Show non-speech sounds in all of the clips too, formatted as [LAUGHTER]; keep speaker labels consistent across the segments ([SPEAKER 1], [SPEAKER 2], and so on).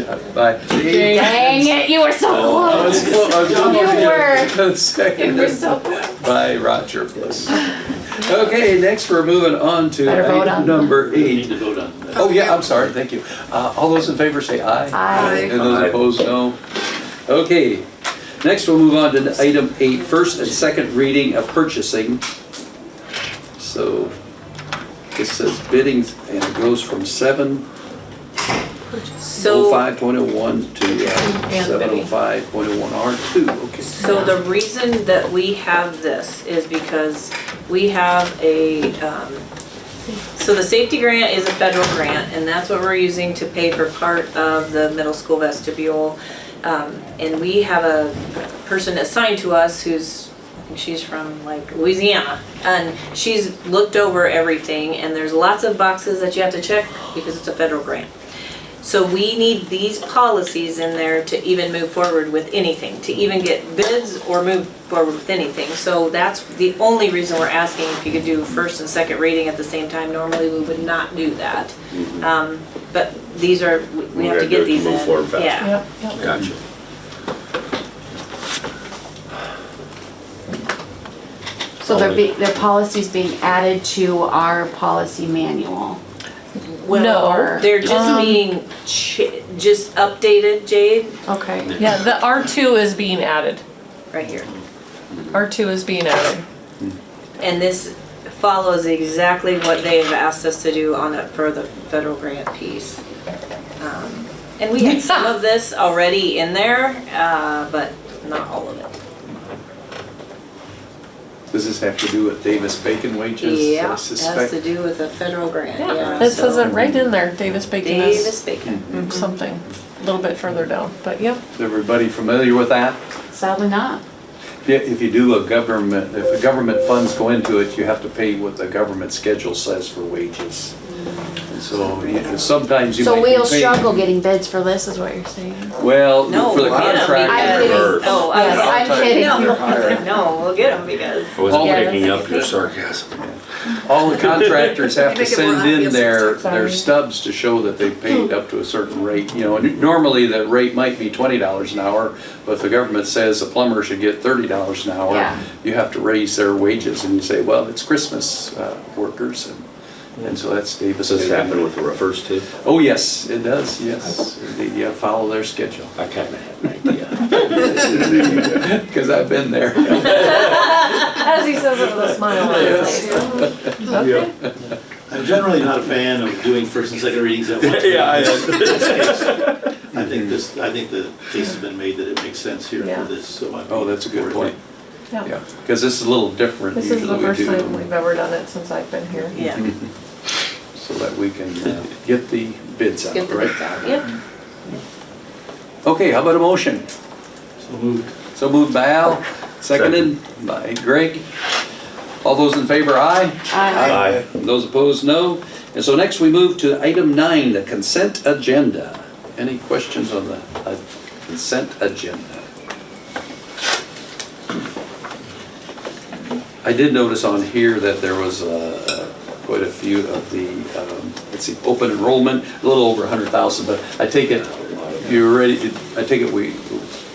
[SPEAKER 1] Bye.
[SPEAKER 2] Dang it, you were so
[SPEAKER 1] I Oh, was
[SPEAKER 2] close.
[SPEAKER 1] clo- I was almost
[SPEAKER 2] You were.
[SPEAKER 1] gonna- a second.
[SPEAKER 2] You were so close.
[SPEAKER 1] By Roger Bliss. Okay, next we're moving on to
[SPEAKER 2] Better vote
[SPEAKER 1] item
[SPEAKER 2] on-
[SPEAKER 1] number
[SPEAKER 3] We need
[SPEAKER 1] eight.
[SPEAKER 3] to vote on that.
[SPEAKER 1] Oh, yeah, I'm sorry, thank you. Uh, All those in favor say aye.
[SPEAKER 2] Aye.
[SPEAKER 1] And those opposed, no. Okay, next we'll move on to item eight, first and second reading of purchasing. So it says bidding and it goes from seven oh
[SPEAKER 4] So,
[SPEAKER 1] five point oh one to
[SPEAKER 4] And
[SPEAKER 1] seven oh
[SPEAKER 4] bidding.
[SPEAKER 1] five point oh one R two, okay.
[SPEAKER 4] so the reason that we have this is because we have a, um, so the safety grant is a federal grant, and that's what we're using to pay for part of the middle school vestibule. Um, and we have a person assigned to us who's, I think she's from like Louisiana, and she's looked over everything, and there's lots of boxes that you have to check because it's a federal grant. So we need these policies in there to even move forward with anything, to even get bids or move forward with anything. So that's the only reason we're asking if you could do first and second reading at the same time. Normally, we would not do that. Um, But these are, we- we have
[SPEAKER 5] We're gonna Mm-hmm.
[SPEAKER 4] to
[SPEAKER 5] do it
[SPEAKER 4] get
[SPEAKER 5] to
[SPEAKER 4] these in.
[SPEAKER 5] move forward faster.
[SPEAKER 4] Yeah.
[SPEAKER 5] Gotcha.
[SPEAKER 2] So they're be, their policy's being added to our policy manual.
[SPEAKER 4] Well,
[SPEAKER 2] No.
[SPEAKER 4] they're just
[SPEAKER 6] Um,
[SPEAKER 4] being, ch- just updated, Jade,
[SPEAKER 2] Okay.
[SPEAKER 6] Yeah, the R2 is being added.
[SPEAKER 4] right here.
[SPEAKER 6] R2 is being added.
[SPEAKER 4] And this follows exactly what they have asked us to do on it for the federal grant piece. Um, And we had some of this already in there, uh, but not all of it.
[SPEAKER 1] Does this have to do with Davis Bacon wages? I
[SPEAKER 4] Yeah, has
[SPEAKER 1] suspect.
[SPEAKER 4] to do with the federal grant, yeah.
[SPEAKER 6] Yeah, it
[SPEAKER 4] so-
[SPEAKER 6] says it right in there, Davis Bacon
[SPEAKER 4] Davis Mm-hmm.
[SPEAKER 6] is
[SPEAKER 4] Bacon.
[SPEAKER 1] Hmm.
[SPEAKER 6] something, a little bit further down,
[SPEAKER 4] [LAUGHS]
[SPEAKER 6] but yep.
[SPEAKER 1] Is everybody familiar with that?
[SPEAKER 2] Sadly not.
[SPEAKER 1] If you- If you do a government, if the government funds go into it, you have to pay what the government schedule says for wages.
[SPEAKER 4] Mm.
[SPEAKER 1] And So you- sometimes you
[SPEAKER 2] So
[SPEAKER 1] might be
[SPEAKER 2] we'll
[SPEAKER 1] paying-
[SPEAKER 2] struggle getting bids for this is what you're saying.
[SPEAKER 1] Well,
[SPEAKER 4] No,
[SPEAKER 1] for the
[SPEAKER 4] we'll get 'em
[SPEAKER 2] I'm
[SPEAKER 1] contract,
[SPEAKER 2] kidding.
[SPEAKER 5] Reverse.
[SPEAKER 4] Oh, I
[SPEAKER 2] Yes,
[SPEAKER 4] was-
[SPEAKER 2] I'm kidding.
[SPEAKER 4] No, no, we'll get them because.
[SPEAKER 5] I wasn't
[SPEAKER 2] Yeah,
[SPEAKER 5] picking
[SPEAKER 2] that's-
[SPEAKER 5] up your sarcasm.
[SPEAKER 1] all the
[SPEAKER 6] [LAUGHS]
[SPEAKER 1] contractors have to
[SPEAKER 7] Make it more
[SPEAKER 1] send in
[SPEAKER 7] obvious
[SPEAKER 1] their,
[SPEAKER 7] next
[SPEAKER 6] time. Hmm.
[SPEAKER 1] their
[SPEAKER 6] Sorry.
[SPEAKER 1] stubs to show that they paid up to a certain rate, you know. and Normally, the rate might be twenty dollars an hour, but if the government says a plumber should get thirty dollars an hour.
[SPEAKER 2] Yeah.
[SPEAKER 1] You have to raise their wages and you say, well, it's Christmas uh, workers and, and so that's Davis.
[SPEAKER 5] Does this
[SPEAKER 1] Bacon.
[SPEAKER 5] happen with the reverse too?
[SPEAKER 1] Oh, yes, it does, yes. Indeed, you follow their schedule,
[SPEAKER 5] I kinda had an idea.
[SPEAKER 1] [LAUGHS] because I've been there. [LAUGHS]
[SPEAKER 6] As he says it with a smile on his face. Okay.
[SPEAKER 3] I'm generally not a fan of doing first and second readings
[SPEAKER 1] [LAUGHS]
[SPEAKER 3] at once.
[SPEAKER 5] Yeah, I-
[SPEAKER 3] In this case, I think this, I think the case has been made that it makes sense here
[SPEAKER 6] Yeah.
[SPEAKER 3] for this, so I.
[SPEAKER 1] Oh, that's a good point,
[SPEAKER 6] Yeah.
[SPEAKER 1] yeah, because this is a little different
[SPEAKER 6] This is the
[SPEAKER 1] usually we
[SPEAKER 6] first time we've
[SPEAKER 1] do.
[SPEAKER 6] ever done it since I've been here.
[SPEAKER 4] Yeah.
[SPEAKER 1] [LAUGHS] So that we can uh, get the bids out,
[SPEAKER 4] Get the bids
[SPEAKER 1] right?
[SPEAKER 4] out, yep.
[SPEAKER 1] Okay, how about a motion?
[SPEAKER 3] So moved.
[SPEAKER 1] So moved by Al, seconded by Greg. All those in favor, aye.
[SPEAKER 2] I
[SPEAKER 5] Aye.
[SPEAKER 1] Those opposed, no. And so next we move to item nine, the consent agenda. Any questions on the uh, consent agenda? I did notice on here that there was uh, quite a few of the, um, let's see, open enrollment, a little over 100,000, but I take it, you're ready, I take it we,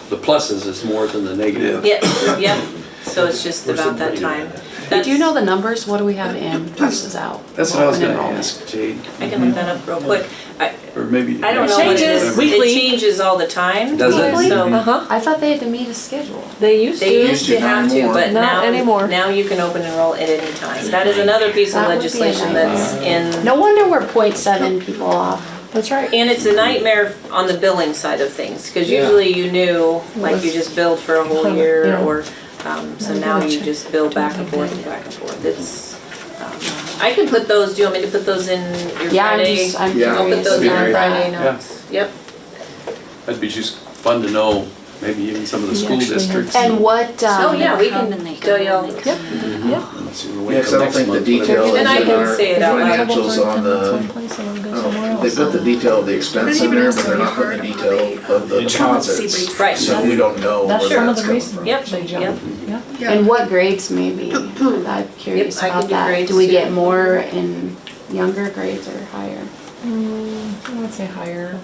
[SPEAKER 1] the pluses is more than the negative.
[SPEAKER 4] Yep, yep, so it's just about that time.
[SPEAKER 2] Do you know the numbers? What do we have in versus out?
[SPEAKER 1] That's what I was
[SPEAKER 2] Open
[SPEAKER 1] gonna
[SPEAKER 2] enrollment.
[SPEAKER 1] ask, Jade,
[SPEAKER 4] I can look that up real quick. I,
[SPEAKER 1] or maybe.
[SPEAKER 4] I don't know what it
[SPEAKER 6] changes
[SPEAKER 4] is.
[SPEAKER 6] weekly.
[SPEAKER 4] It changes all the time.
[SPEAKER 1] Does it?
[SPEAKER 4] So
[SPEAKER 6] Uh-huh.
[SPEAKER 2] I thought they had to meet a schedule.
[SPEAKER 6] They used
[SPEAKER 4] They
[SPEAKER 6] to.
[SPEAKER 4] used to have to, but
[SPEAKER 6] Not
[SPEAKER 4] now,
[SPEAKER 6] anymore.
[SPEAKER 4] now you can open enroll at any time. That is another piece of
[SPEAKER 2] That would be a
[SPEAKER 4] legislation that's in,
[SPEAKER 2] No wonder we're 0.7 people off.
[SPEAKER 6] That's right.
[SPEAKER 4] and it's a nightmare on the billing side of things. Cause usually you knew, like you just billed for a whole year
[SPEAKER 6] Yeah.
[SPEAKER 4] or, um, so
[SPEAKER 6] I'm
[SPEAKER 4] now
[SPEAKER 6] gonna
[SPEAKER 4] you
[SPEAKER 6] check.
[SPEAKER 4] just bill back and forth and back and forth. It's, um, I can put those, do you want me to put those in your
[SPEAKER 2] Yeah, I'm
[SPEAKER 4] Friday?
[SPEAKER 2] just, I'm
[SPEAKER 1] Yeah.
[SPEAKER 4] I'll put
[SPEAKER 2] curious.
[SPEAKER 4] those in
[SPEAKER 2] about
[SPEAKER 4] our Friday
[SPEAKER 2] that.
[SPEAKER 1] Yeah.
[SPEAKER 4] notes. Yep.
[SPEAKER 1] That'd be just fun to know, maybe even some of the school
[SPEAKER 6] actually have-
[SPEAKER 1] districts.
[SPEAKER 2] And what,
[SPEAKER 4] So, Oh, yeah,
[SPEAKER 2] um,
[SPEAKER 4] we
[SPEAKER 7] come
[SPEAKER 4] can
[SPEAKER 7] and they
[SPEAKER 4] tell
[SPEAKER 7] go
[SPEAKER 4] y'all.
[SPEAKER 7] and they
[SPEAKER 6] Yep, yeah.
[SPEAKER 8] Mm-hmm.
[SPEAKER 1] Let's see, we'll wait
[SPEAKER 8] Yeah, 'cause
[SPEAKER 1] till
[SPEAKER 8] I don't
[SPEAKER 1] next
[SPEAKER 8] think the
[SPEAKER 1] month, whatever.
[SPEAKER 8] detail
[SPEAKER 4] Then I
[SPEAKER 8] is in
[SPEAKER 4] can
[SPEAKER 8] our
[SPEAKER 4] say it out loud.
[SPEAKER 8] financials on
[SPEAKER 6] One
[SPEAKER 8] the,
[SPEAKER 6] place and then
[SPEAKER 8] I
[SPEAKER 6] go
[SPEAKER 8] don't
[SPEAKER 6] somewhere
[SPEAKER 8] know,
[SPEAKER 6] else.
[SPEAKER 8] they put the detail of the expense in there, but they're not putting the detail of the deposits.
[SPEAKER 4] Right.
[SPEAKER 8] So we don't know where
[SPEAKER 6] That's some of
[SPEAKER 8] that's
[SPEAKER 6] the
[SPEAKER 8] coming
[SPEAKER 6] reasons.
[SPEAKER 8] from.
[SPEAKER 4] Yep,
[SPEAKER 6] they jump.
[SPEAKER 4] yep.
[SPEAKER 6] Yeah.
[SPEAKER 2] and what grades maybe? I'm curious
[SPEAKER 4] Yep, I can
[SPEAKER 2] about
[SPEAKER 4] do
[SPEAKER 2] that.
[SPEAKER 4] grades
[SPEAKER 2] Do we
[SPEAKER 4] too.
[SPEAKER 2] get more in younger grades or higher?
[SPEAKER 6] Mm, I would say higher.